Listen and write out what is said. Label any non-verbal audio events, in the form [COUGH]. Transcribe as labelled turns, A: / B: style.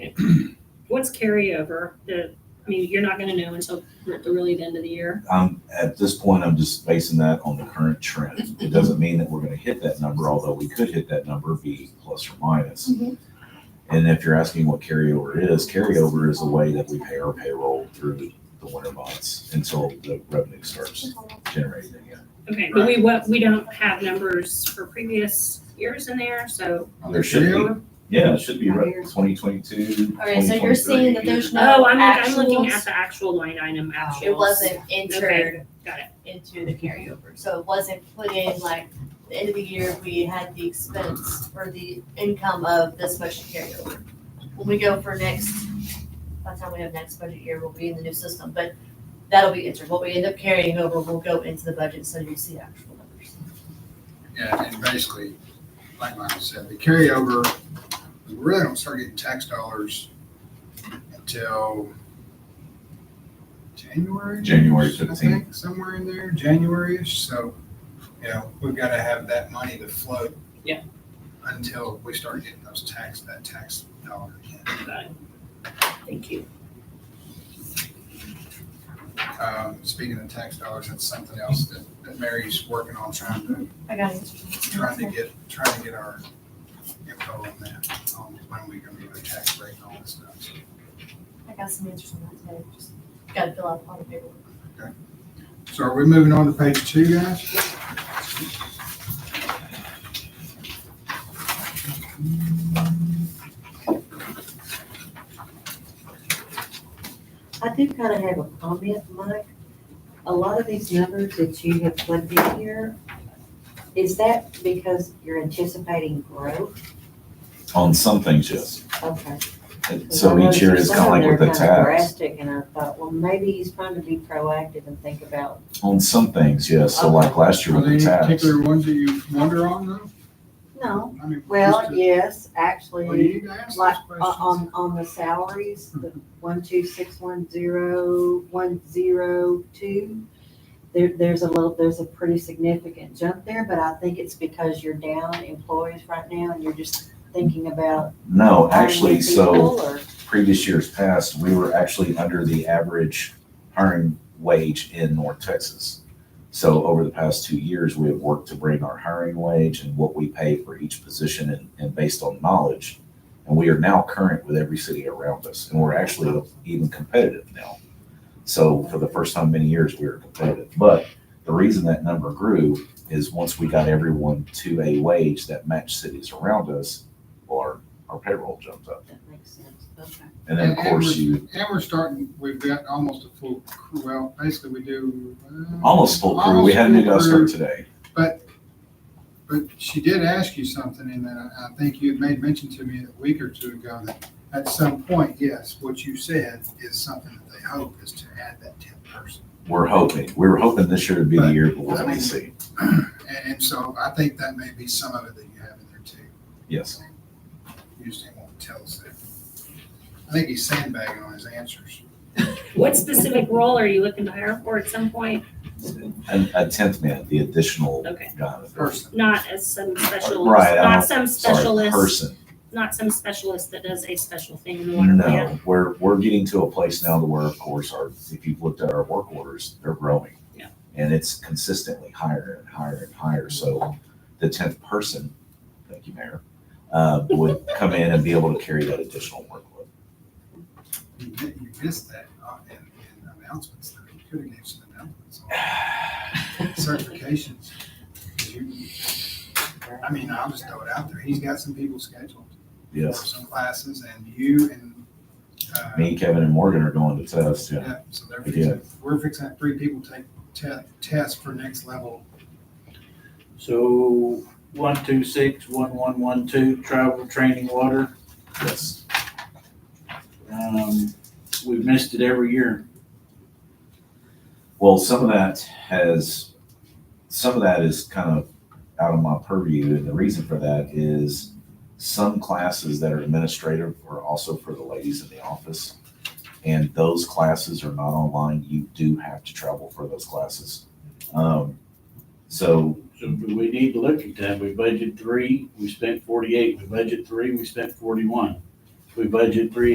A: what's carryover? The, I mean, you're not gonna know until we're at the really the end of the year.
B: I'm, at this point, I'm just basing that on the current trend. It doesn't mean that we're gonna hit that number, although we could hit that number, be plus or minus.
C: Mm-hmm.
A: Mhm.
B: And if you're asking what carryover is, carryover is a way that we pay our payroll through the winter months until the revenue starts generating again.
A: Okay, but we, what, we don't have numbers for previous years in there, so.
B: Oh, There should be, yeah, it should be twenty twenty-two.
C: All right, so you're saying that there's
A: Oh,
C: no
A: I'm, look- I'm looking
C: actuals?
A: at the actual line item actuals.
C: It wasn't entered
A: Got it.
C: into the carryover, so it wasn't put in like, the end of the year, we had the expense or the income of this much to carry over. When we go for next, by the time we have next budget year, we'll be in the new system, but that'll be entered, what we end up carrying over will go into the budget, so you'll see actual numbers.
D: Yeah, and basically, like Michael said, the carryover, we really don't start getting tax dollars until January.
B: January
D: I think,
B: 15.
D: Somewhere in there, January-ish, so, you know, we've got to have that money to float.
A: Yeah.
D: Until we start getting those tax, that tax dollar again.
A: Got it. Thank you.
D: Um, speaking of tax dollars, that's something else that, that Mary's working on, trying to
C: I got it.
D: trying to get, trying to get our info on that, on when we're gonna get a tax rate and all that stuff. So,
C: I got some answers on that today, just gotta fill out all the paperwork.
D: So are we moving on to page two, guys?
E: I do kind of have a comment, Mike. A lot of these numbers that you have plugged in here, is that because you're anticipating growth?
B: On some things, yes.
E: Okay.
B: And So each year is kind of like with the
E: Because I noticed some
B: tax.
E: of them are kinda Drastic, and I thought, well, maybe he's trying to be proactive and think about,
B: On some things, yes. So like last year
D: Are
B: with
D: there
B: the tax.
D: any particular ones that you wonder on though?
E: no,
D: I mean,
E: well,
D: just to-
E: yes,
D: Well,
E: actually,
D: you need to ask those
E: like, uh, um, o-
D: questions.
E: on, on the salaries, the one, two, six, one, zero, one, zero, two. There, there's a little, there's a pretty significant jump there, but I think it's because you're down employees right now and you're just thinking about.
B: No,
E: hiring
B: actually,
E: new
B: so.
E: people or-
B: previous years past, we were actually under the average hiring wage in North Texas. So over the past two years, we have worked to bring our hiring wage and what we pay for each position and, and based on knowledge. And we are now current with every city around us, and we're actually even competitive now. So for the first time in many years, we were competitive. But the reason that number grew is once we got everyone to a wage that matched cities around us, well, our, our payroll jumped up.
E: That makes sense, okay.
B: And then, of
D: And- and
B: course,
D: we're-
B: you
D: And we're starting, we've got almost a full, crew. well, basically we do. uh,
B: Almost full crew. We had a new guy
D: almost full
B: start
D: crew.
B: today.
D: But she did ask you something, and then I I think you had made mention to me a week or two ago that at some point, yes, what you said is something that they hope is to add that tenth person.
B: We're hoping. We were hoping this year would be the year, but we'll have to see.
D: And, and so I think that may be some of it that you have in there too.
B: Yes.
D: You just didn't want to tell us that. I think he's sandbagging on his answers.
A: What specific role are you looking to hire for at some point?
B: A, a tenth man, the additional
A: Okay.
B: guy.
D: Person,
A: Not as some special,
B: Right, I
A: not
B: don't-
A: some
B: Sorry,
A: specialist,
B: person.
A: not some specialist that does a special thing in the water plant.
B: No, we're, we're getting to a place now to where, of course, our, if you've looked at our work orders, they're growing.
A: Yeah.
B: And it's consistently higher and higher and higher. So the tenth person, thank you, Mayor, uh, would come in and be able to carry that additional workload. [SIGHS]
D: you mi- you missed that uh, in, in announcements, though. You could have gave some announcements on certifications. 'Cause you- I mean, I'll just throw it out there. He's got some people scheduled. for
B: Yes.
D: some classes and you and, uh,
B: Me, Kevin, and Morgan are going to test. Yeah.
D: yeah, so they're
B: Yeah.
D: fixing, we're fixing, to have three people take te- tests for next level.
F: So one, two, six, one, one, one, two, travel, training, water.
B: Yes.
F: Um, we've missed it every year.
B: Well, some of that has, some of that is kind of out of my purview, and the reason for that is some classes that are administrative are also for the ladies in the office. And those classes are not online. You do have to travel for those classes. Um, so
F: So we need to look at that. We budgeted three, we spent forty-eight. We budgeted three, we spent forty-one. We budgeted three